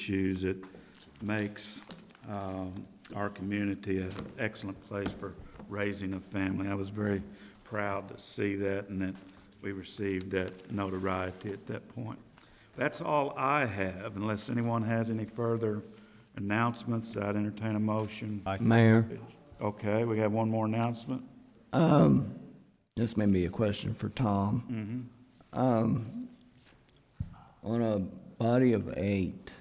issues that makes um, our community an excellent place for raising a family. I was very proud to see that and that we received that notoriety at that point. That's all I have, unless anyone has any further announcements, I'd entertain a motion. Mayor, Okay, we have one more announcement? this may be a question for Tom. Mm-hmm. Um, On a body of eight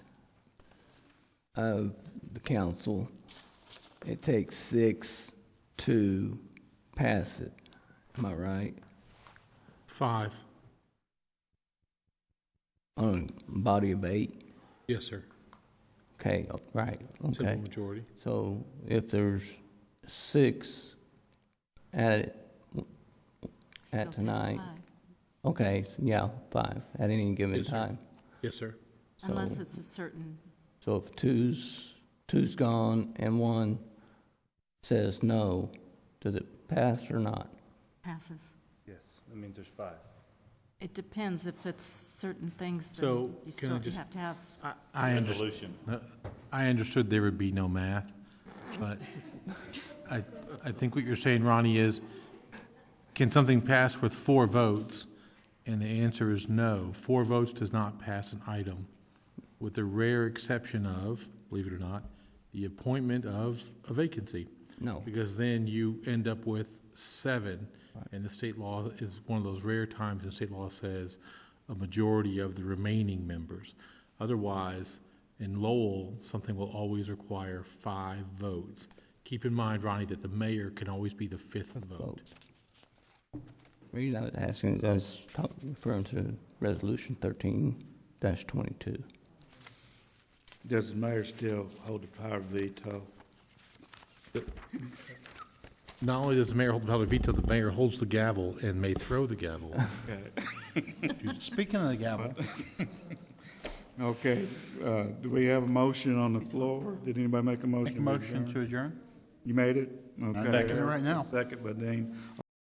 of the council, it takes six to pass it. Am I right? Five. On a body of eight? Yes, sir. Okay, right, Simple okay. majority. So if there's six at, it, Still at takes tonight, five, okay, s- yeah, five, at any given Yes, sir. time. Yes, sir. Unless So- it's a certain, So if two's, two's gone and one says no, does it pass or not? passes. Yes, that means there's five. It depends if it's certain things, So, then can I you still you just- have to have, I, I understood, I understood there would be no math, but I, I think what you're saying, Ronnie, is can something pass with four votes? And the answer is no. Four votes does not pass an item, with the rare exception of, believe it or not, the appointment of a vacancy. No. Because then you end up with seven, and the state law is one of those rare times the state law says a majority of the remaining members. Otherwise, in Lowell, something will always require five votes. Keep in mind, Ronnie, that the mayor can always be the fifth vote. Reason I was asking, I was talk- referring to resolution thirteen twenty-two. Does the mayor still hold the power of veto? Not only does the mayor hold the power to veto, the mayor holds the gavel and may throw the gavel. Speaking of the gavel, Okay, uh, do we have a motion on the floor? Did anybody make a motion? make a motion to adjourn? You made it? second it Okay. right now. Second by Dean.